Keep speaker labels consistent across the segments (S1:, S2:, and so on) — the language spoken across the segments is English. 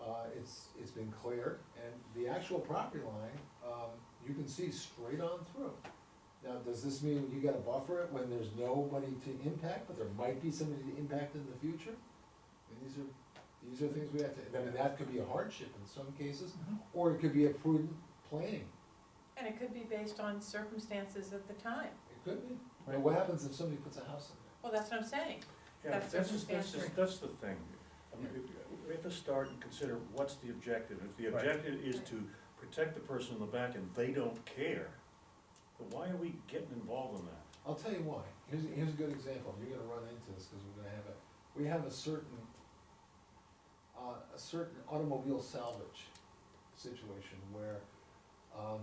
S1: uh, it's, it's been cleared, and the actual property line, um, you can see straight on through. Now, does this mean you gotta buffer it when there's nobody to impact, but there might be somebody to impact in the future? And these are, these are things we have to, I mean, that could be a hardship in some cases, or it could be a prudent planning,
S2: And it could be based on circumstances at the time.
S1: it could be. But what happens if somebody puts a house in there?
S2: Well, that's what I'm saying.
S3: Yeah,
S2: That's
S3: that's, just- that's,
S2: circumstantial.
S3: just- that's the thing. I mean, if- we have to start and consider what's the objective. If the objective is to protect the person in the back and they don't care, then why are we getting involved in that?
S1: I'll tell you why, here's, here's a good example, you're gonna run into this, cause we're gonna have a, we have a certain, uh, a certain automobile salvage situation where, um,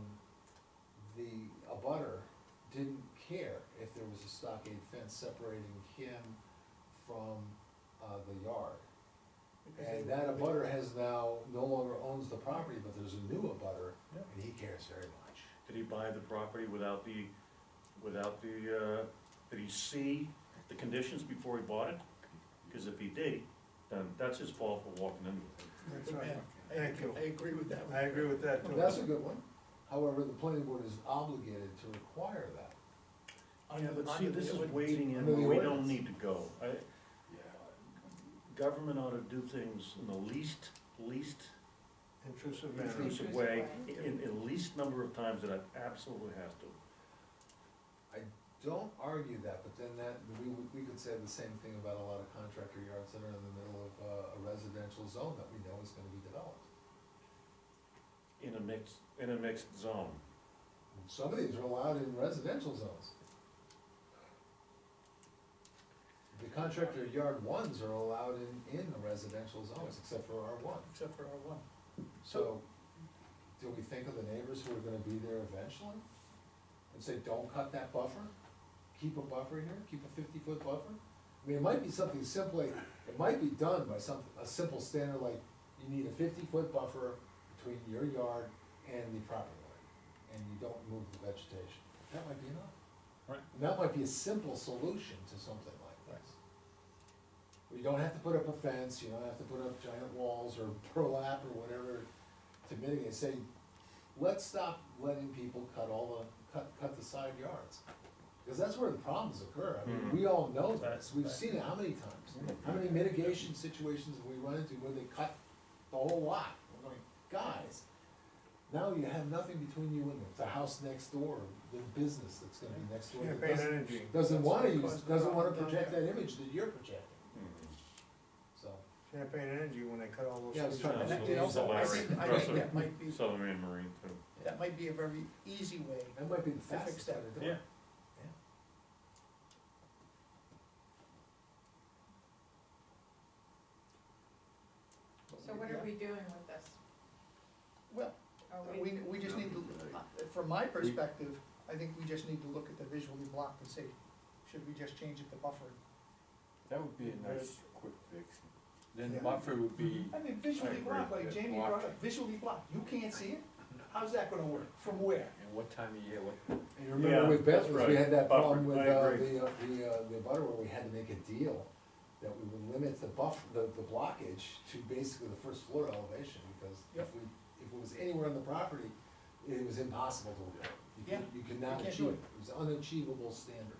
S1: the abutter didn't care if there was a stockade fence separating him from, uh, the yard. And that abutter has now, no longer owns the property, but there's a new abutter,
S3: Yeah.
S1: and he cares very much.
S3: Did he buy the property without the, without the, uh, did he see the conditions before he bought it? Cause if he did, then that's his fault for walking into it.
S4: That's right. Thank you. I agree with that. I agree with that
S1: Well, That's a good one. However, the planning board is obligated to require that.
S3: Yeah, but see, this is wading in,
S1: Under the
S3: where we don't
S1: ordinance.
S3: need to go. I, government ought to do things in the least, least
S4: Intrusive manner.
S3: intrusive
S2: Intrusive
S3: way,
S2: way.
S3: in, in least number of times that it absolutely has to.
S1: Don't argue that, but then that, we, would- we could say the same thing about a lot of contractor yards that are in the middle of uh, a residential zone that we know is gonna be developed.
S3: In a mixed, in a mixed zone.
S1: Some of these are allowed in residential zones. The contractor yard ones are allowed in, in the residential zones, except for R one.
S4: Except for R one.
S1: So, do we think of the neighbors who are gonna be there eventually? And say, don't cut that buffer, keep a buffer here, keep a fifty-foot buffer? I mean, it might be something simply, it might be done by some, a simple standard like, you need a fifty-foot buffer between your yard and the property line, and you don't move the vegetation. That might be enough.
S3: Right.
S1: And that might be a simple solution to something like this. You don't have to put up a fence, you don't have to put up giant walls or burlap or whatever to mitigate, say, let's stop letting people cut all the, cut, cut the side yards. Cause that's where the problems occur, I mean, we all know this, we've seen it how many times? How many mitigation situations have we run into where they cut the whole lot? We're going, guys, now you have nothing between you and the, the house next door, the business that's gonna be next door.
S4: Yeah,
S1: that
S4: pay
S1: doesn't-
S4: energy.
S1: doesn't wanna
S4: That's
S1: use,
S4: what caused the
S1: doesn't wanna
S4: problem down
S1: project
S4: there.
S1: that image that you're projecting,
S5: Mm-hmm.
S1: so.
S4: Champagne Energy, when they cut all those.
S1: Yeah, I was
S4: trees
S1: trying to-
S4: down.
S1: And that-
S3: It's
S1: also, I
S3: Larry,
S6: think- I
S3: Russell,
S6: think that might be-
S3: Southern Maine Marine too.
S6: That might be a very easy way.
S1: That might be the
S6: They
S1: fastest
S6: fixed
S1: way
S6: that.
S1: to do it.
S3: Yeah.
S2: So what are we doing with this?
S6: Well, uh,
S2: Are
S6: we, we just need to, from my perspective, I think we just need to look at the visually blocked and say, should we just change it to buffered?
S7: That would be a nice quick fix. Then
S4: Yeah.
S7: buffer would be,
S6: I mean, visually
S7: agree.
S6: blocked, like Jamie
S7: Blocked.
S6: brought up, visually blocked, you can't see it? How's that gonna work? From where?
S7: and what time of year, what,
S1: And you remember with
S3: that's
S1: Bedford, we
S3: right.
S1: had that problem
S3: Buffer,
S1: with,
S3: I
S1: uh,
S3: agree.
S1: the, uh, the, uh, the butter where we had to make a deal that we would limit the buff, the, the blockage to basically the first floor elevation, because if
S6: Yep.
S1: we, if it was anywhere on the property, it was impossible to work. You could-
S6: Yeah,
S1: You could not
S6: you can't
S1: achieve
S6: do
S1: it,
S6: it.
S1: it was unachievable standard,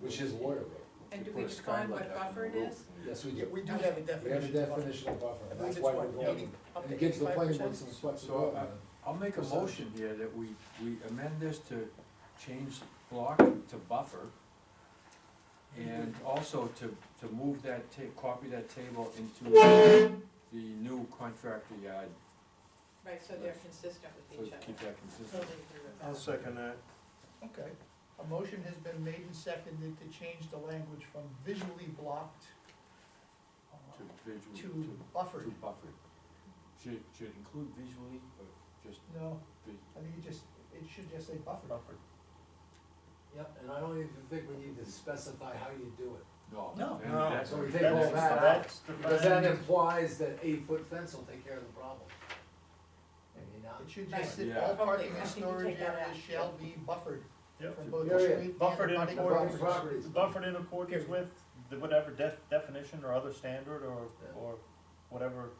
S1: which is lawyer rule.
S2: And do
S7: Put
S2: we
S7: a
S2: define what
S7: skylight up on
S2: buffer it
S7: the roof.
S2: is?
S1: Yes, we
S6: Yeah,
S1: do,
S6: we do have a
S1: we have a
S6: definition. of buffer.
S1: definition of buffer,
S6: I
S1: and
S6: believe
S1: that's
S6: it's
S1: why we're
S6: what,
S1: going,
S6: 80 up
S1: and
S6: to
S1: it gives the planning
S6: 85%?
S1: board some flexibility.
S7: So, uh, I'll make a
S1: Percentage.
S7: motion here that we, we amend this to change block to buffer. And also to, to move that ta, copy that table into the new contractor yard,
S2: Right, so they're consistent
S7: so
S2: with
S7: to
S2: each other.
S7: keep that
S2: Totally
S7: consistent.
S2: agree with
S4: I'll
S2: that.
S4: second that.
S6: Okay, a motion has been made and seconded to change the language from visually blocked uh,
S7: To visual,
S6: to
S7: to, to
S6: buffered.
S7: buffer. Should, should include visually or just
S6: No,
S7: vis-
S6: I think it just, it should just say buffered.
S1: Yep, and I don't even think we need to specify how you do it.
S7: no?
S6: No.
S7: then
S4: No.
S7: that's-
S1: So we take all that out,
S3: That's
S1: because that implies that eight-foot fence will take care of the problem. Maybe not.
S6: It should just
S7: Right.
S6: sit, all
S7: Yeah.
S6: parking
S2: Okay, I
S6: and
S2: think you
S6: storage
S2: take that
S6: areas
S2: out.
S6: shall be buffered
S3: Yep.
S6: from both the
S1: Period.
S6: street and the
S5: Buffered in
S6: abutting
S1: The property-
S6: properties.
S1: properties.
S5: Buffered in accordance with the whatever def- definition or other standard or,
S1: Yeah.
S5: or whatever